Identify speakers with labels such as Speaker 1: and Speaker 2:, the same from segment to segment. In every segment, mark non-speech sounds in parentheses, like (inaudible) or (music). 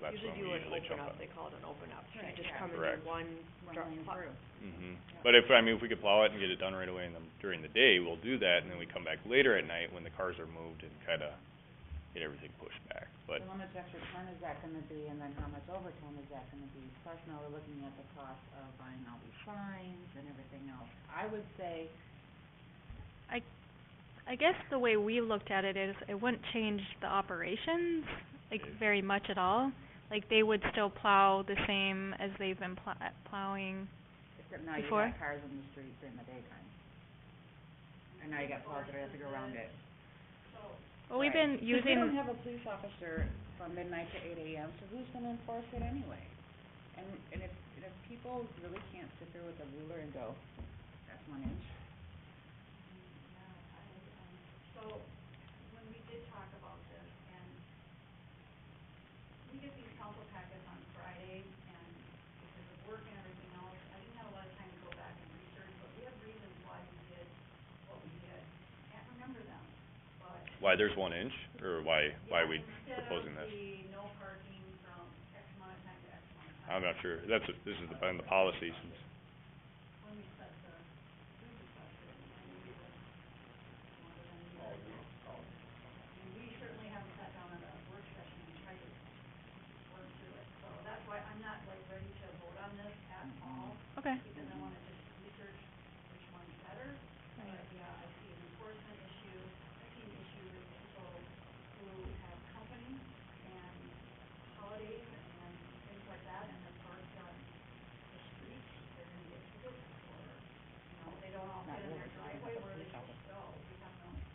Speaker 1: that's when
Speaker 2: usually
Speaker 1: we
Speaker 2: do an
Speaker 1: usually
Speaker 2: open
Speaker 1: jump
Speaker 2: up,
Speaker 1: in.
Speaker 2: they call it an open up, so you
Speaker 3: Right,
Speaker 2: just
Speaker 3: yeah.
Speaker 2: come and
Speaker 1: Correct.
Speaker 2: do one drop,
Speaker 3: Running
Speaker 2: pl-
Speaker 3: through.
Speaker 1: Mhm. But if, I mean, if we could plow it and get it done right away in the, during the day, we'll do that, and then we come back later at night when the cars are moved and kinda get everything pushed back, but,
Speaker 3: So how much extra time is that gonna be, and then how much overtime is that gonna be? Plus now we're looking at the cost of buying all these signs and everything else. I would say,
Speaker 4: I guess the way we looked at it is it wouldn't change the operations like
Speaker 1: Okay.
Speaker 4: very much at all. Like they would still plow the same as they've been pl- plowing.
Speaker 3: except now you
Speaker 4: Before?
Speaker 3: got cars in the street during the daytime. And now you got cars that have to go around it.
Speaker 4: Well, we've
Speaker 3: Right.
Speaker 4: been
Speaker 3: 'Cause we don't
Speaker 4: using,
Speaker 3: have a police officer from midnight to eight AM, so who's gonna enforce it anyway? And, and if, and if people really can't sit there with a ruler and go, that's one inch.
Speaker 1: why there's one inch, or why, why are we proposing this? I'm not sure, that's, a- this is the, on the policy since.
Speaker 4: okay.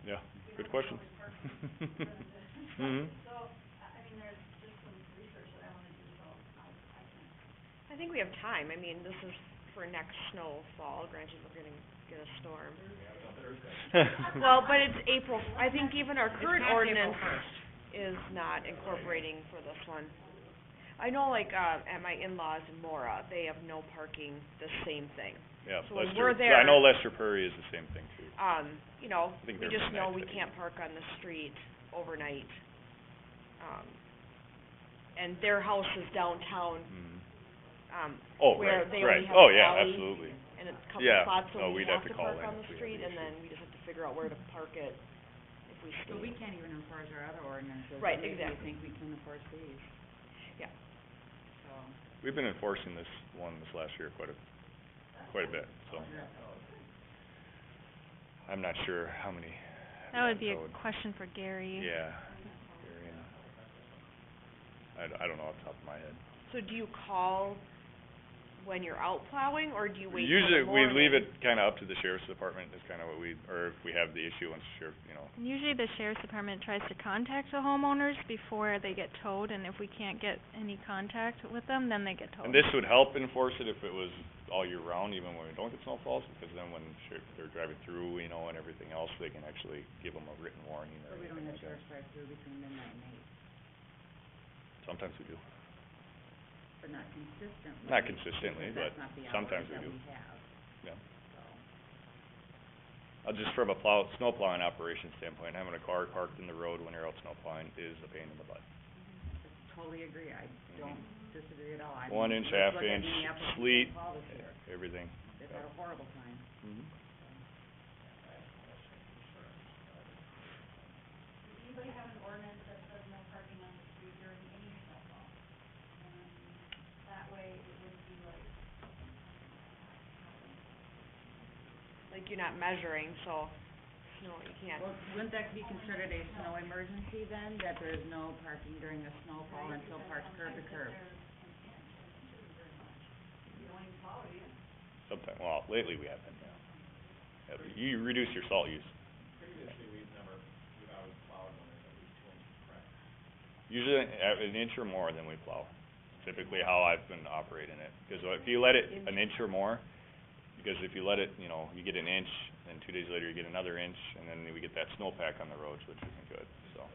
Speaker 1: Yeah, good question. Mhm.
Speaker 2: I think we have time, I mean, this is for next snowfall, granted we're gonna get a
Speaker 1: (laughs)
Speaker 2: storm. Well, but it's April, f- I think even our current
Speaker 3: not April
Speaker 2: ordinance is not incorporating for this one. I know like, uh, at my in-laws in Mora, they have no parking, the same thing.
Speaker 1: Yeah,
Speaker 2: So when
Speaker 1: Lester,
Speaker 2: we're
Speaker 1: yeah, I
Speaker 2: there-
Speaker 1: know Lester Prairie is the same thing too.
Speaker 2: Um, you know,
Speaker 1: I think
Speaker 2: we
Speaker 1: they're
Speaker 2: just know we
Speaker 1: connected.
Speaker 2: can't park on the street overnight. Um, and their house is downtown,
Speaker 1: Mhm.
Speaker 2: um,
Speaker 1: Oh,
Speaker 2: where
Speaker 1: right,
Speaker 2: they
Speaker 1: right,
Speaker 2: only have
Speaker 1: oh,
Speaker 2: an
Speaker 1: yeah,
Speaker 2: alley
Speaker 1: absolutely.
Speaker 2: and a couple
Speaker 1: Yeah,
Speaker 2: spots,
Speaker 1: no,
Speaker 2: so we
Speaker 1: we'd
Speaker 2: have
Speaker 1: have to
Speaker 2: to
Speaker 1: call
Speaker 2: park
Speaker 1: in
Speaker 2: on the
Speaker 1: if we have
Speaker 2: street,
Speaker 1: an
Speaker 2: and
Speaker 1: issue.
Speaker 2: then we just have to figure out where to park it if we stay.
Speaker 3: But we can't even enforce our other ordinances,
Speaker 2: Right,
Speaker 3: and maybe you
Speaker 2: exactly.
Speaker 3: think we can enforce these.
Speaker 2: Yeah.
Speaker 3: So,
Speaker 1: We've been enforcing this one this last year quite a, quite a bit, so. I'm not sure how many.
Speaker 4: That would be a
Speaker 1: that would-
Speaker 4: question for Gary.
Speaker 1: Yeah. Very, uh, I, d- I don't know off the top of my head.
Speaker 2: So do you call when you're out plowing, or do you wait till
Speaker 1: Usually,
Speaker 2: the
Speaker 1: we
Speaker 2: morning?
Speaker 1: leave it kinda up to the sheriff's department is kinda what we, or if we have the issue, once sheriff, you know,
Speaker 4: And usually the sheriff's department tries to contact the homeowners before they get towed and if we can't get any contact with them, then they get towed.
Speaker 1: And this would help enforce it if it was all year round, even when we don't get snowfalls, because then when shir- they're driving through, you know, and everything else, they can actually give them a written warning
Speaker 3: so
Speaker 1: or
Speaker 3: we don't
Speaker 1: anything like that.
Speaker 3: have sheriff's drive through between midnight and eight,
Speaker 1: Sometimes we do.
Speaker 3: but not consistently.
Speaker 1: Not consistently,
Speaker 3: because
Speaker 1: but
Speaker 3: that's not the
Speaker 1: sometimes
Speaker 3: hours
Speaker 1: we do.
Speaker 3: that we have.
Speaker 1: Yeah.
Speaker 3: So,
Speaker 1: Uh, just from a plow, snow plowing operation standpoint, having a car parked in the road when you're out snow plowing is a pain in the butt.
Speaker 3: totally agree, I don't disagree at all. I
Speaker 1: One
Speaker 3: mean,
Speaker 1: inch,
Speaker 3: let's
Speaker 1: half
Speaker 3: look at
Speaker 1: inch,
Speaker 3: Minneapolis and
Speaker 1: sleet.
Speaker 3: St. Paul this year.
Speaker 1: Everything. Mm-hmm.
Speaker 3: They've had a horrible time.
Speaker 2: Like, you're not measuring, so, no, you can't.
Speaker 3: Well, wouldn't that be considered a snow emergency then, that there is no parking during a snowfall until parked curb to curb?
Speaker 1: Sometime, well, lately we haven't, yeah. Yeah, but You reduce your salt use. Previously, we've never, we've always plowed when it's at least two inches, correct? Usually, uh, an inch or more than we plow, typically how I've been operating it, 'cause if you let it an inch or more, because if you let it, you know, you get an inch, then two days later you get another inch, and then we get that snowpack on the roads, which isn't good, so.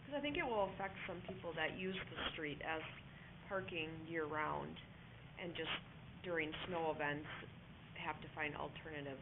Speaker 2: Because I think it will affect some people that use the street as parking year-round and just during snow events have to find alternative